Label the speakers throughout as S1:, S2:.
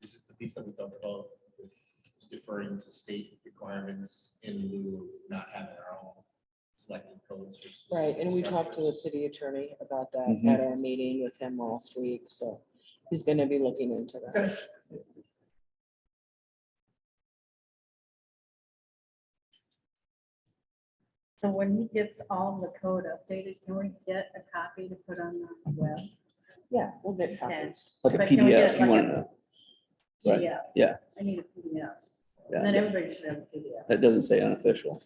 S1: piece that we talked about with deferring to state requirements in lieu of not having our own selected codes. or
S2: Right, and we talked to the
S1: structures.
S2: city attorney about that
S3: Mhm.
S2: at our meeting with him last week, so he's gonna be looking into that.
S4: So when he gets all the code updated, can we get a copy to put on the web?
S2: Yeah, we'll get
S4: Okay.
S2: copies.
S3: Like a
S4: But can we
S3: PDF,
S4: get
S3: you
S4: like
S3: want
S4: a-
S3: to, Right,
S4: PDF.
S3: yeah.
S4: I need a PDF. And then
S3: yeah,
S4: everybody should have a PDF.
S3: that doesn't say unofficial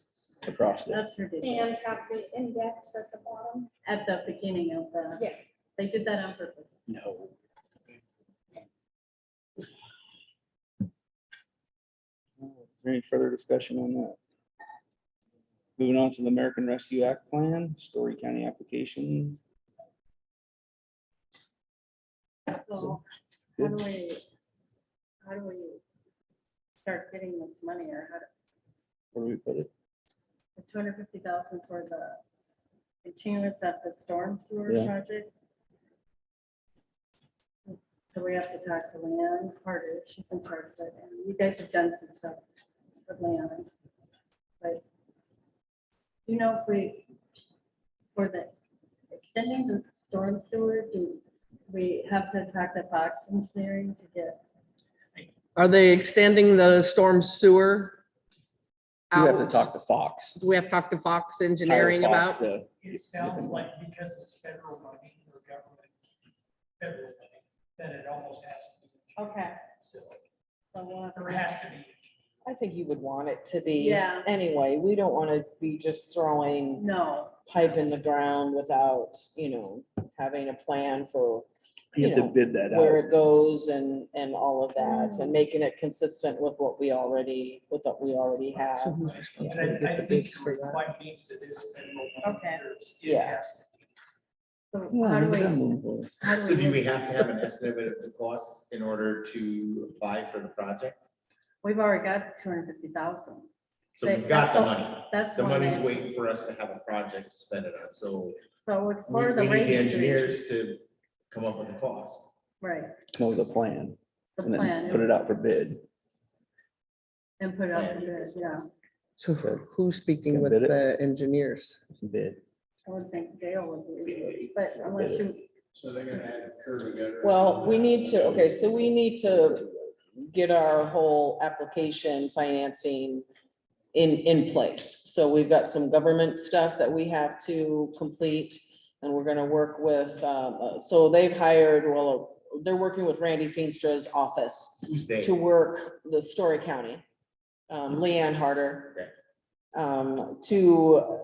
S3: across there.
S4: That's ridiculous.
S5: And probably index at the bottom.
S4: At the beginning of the,
S5: Yeah.
S4: they did that on purpose.
S3: No. Is there any further discussion on that? Moving on to the American Rescue Act Plan, Story County application.
S4: So how
S3: good.
S4: do we, how do we start getting this money or how, do
S3: Where do we put it?
S4: the two hundred fifty thousand for the continuance of the storm sewer
S3: Yeah.
S4: project. So we have to talk to Leanne Carter, she's in charge of it, and you guys have done some stuff with Leanne. But, do you know, if we, for the extending the storm sewer, do we have to talk to Fox Engineering to get?
S6: Are they extending the storm sewer?
S3: You have to
S6: out?
S3: talk to Fox.
S6: Do we have to talk to Fox
S3: Hire
S6: Engineering
S3: Fox uh,
S6: about?
S3: to-
S7: It sounds like because it's federal money or government, federal money, that it almost has to be.
S4: Okay.
S7: So
S4: So we'll have to-
S7: there has to be.
S2: I think you would want it to be.
S4: Yeah.
S2: Anyway, we don't wanna be just throwing
S4: No,
S2: pipe in the ground without, you know, having a plan for
S3: You have
S2: You
S3: to
S2: know,
S3: bid that
S2: where
S3: out.
S2: it goes and, and all of that, and making it consistent with what we already, with what we already have.
S7: And I, I think your point means that this federal. money,
S4: Okay.
S7: there's- it
S2: Yeah.
S7: has to be.
S4: so how do we?
S3: Well,
S4: how
S1: So do
S4: move
S1: we have to
S4: that?
S1: have an estimate of the costs in order to apply for the project?
S4: We've already got two hundred fifty thousand.
S1: So we've got the money.
S4: That's.
S1: The
S4: one
S1: money's
S4: thing.
S1: waiting for us to have a project to spend it on, so
S4: So it's
S1: we
S4: for
S1: we
S4: the
S1: need the
S4: race. street.
S1: engineers to come up with a cost.
S4: Right,
S3: the plan,
S4: the
S3: and
S4: plan.
S3: then put it out for bid.
S4: And put it out,
S1: Plan.
S4: there, yeah.
S6: So who- who's speaking
S3: Can
S6: with
S3: bid it?
S6: the engineers?
S3: Bid.
S4: I would think Dale would be, but unless you,
S8: So they're gonna add curb and gutter.
S2: Well, we need to, okay, so we need to get our whole application financing in, in place. So we've got some government stuff that we have to complete, and we're gonna work with, um, uh, so they've hired, well, they're working with Randy Feenstra's office
S1: Who's they?
S2: to work the Story County, um,
S1: Mm-hmm.
S2: Leanne Harder, um, to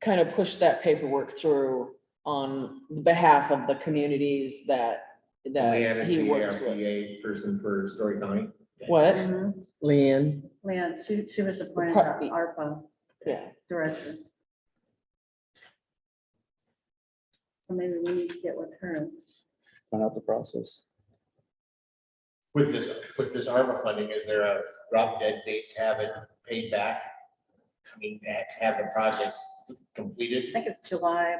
S2: kind of push that paperwork through on behalf of the communities that,
S1: Leanne
S2: that
S1: is
S2: he
S1: the E
S2: works with.
S1: ARPA person for Story County.
S2: What?
S4: Mhm.
S6: Leanne,
S4: Leanne, she, she was appointed
S2: Part B.
S4: ARPA
S2: Yeah,
S4: director. So maybe we need to get with her.
S3: Find out the process.
S1: With this, with this ARPA funding, is there a drop dead date to have it paid back? I mean, ha- have the projects
S4: I
S1: completed?
S4: think it's July,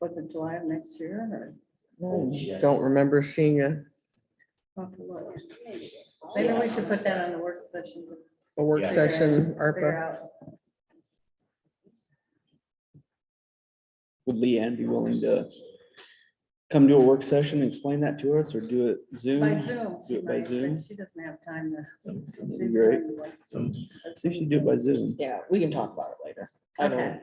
S4: was it July of next year or?
S1: Oh, shit.
S6: don't remember seeing a,
S4: I'll have to look. Maybe we should put that on the work session. to
S6: a work
S1: Yeah.
S6: session,
S4: Figure
S6: ARPA.
S4: out.
S3: Would Leanne be willing to come to a work session and explain that to us or do it
S4: By
S3: Zoom?
S4: Zoom.
S3: Do
S4: she
S3: it by
S4: might, but
S3: Zoom.
S4: She doesn't have time to.
S3: That'd be
S4: she's
S3: great.
S4: doing what-
S3: See if she do it by Zoom.
S2: yeah, we can talk about it later. I don't,
S4: Okay.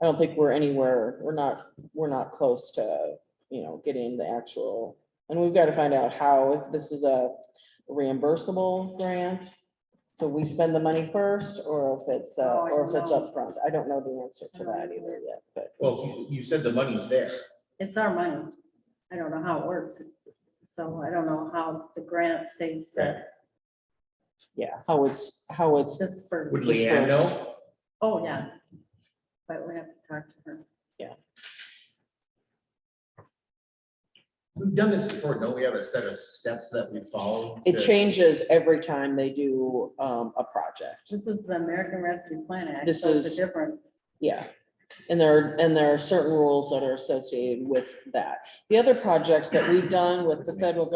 S2: I don't think we're anywhere, we're not, we're not close to, you know, getting the actual, and we've got to find out how, if this is a reimbursable grant, so we spend the money first, or if it's, uh,
S4: Oh, I
S2: or if it's
S4: don't know.
S2: upfront. I don't know the answer to
S4: I don't
S2: that
S4: either.
S2: either yet, but.
S1: Well, you, you said the money's there.
S4: It's our money. I don't know how it works. So I don't know how the grant states that
S2: Yeah, how it's, how it's,
S4: this for,
S1: Would
S2: Just
S1: Leanne
S2: first.
S1: know?
S4: oh, yeah. But we have to talk to her.
S1: We've done this before, don't we have a set of steps that we follow?
S2: it
S1: to-
S2: changes every time they do, um, a project.
S4: This is the American Rescue Plan Act.
S2: This
S4: so it's a
S2: is-
S4: Different,
S2: Yeah. And there, are and there are certain rules that are associated with that. The other projects that we've done with the federal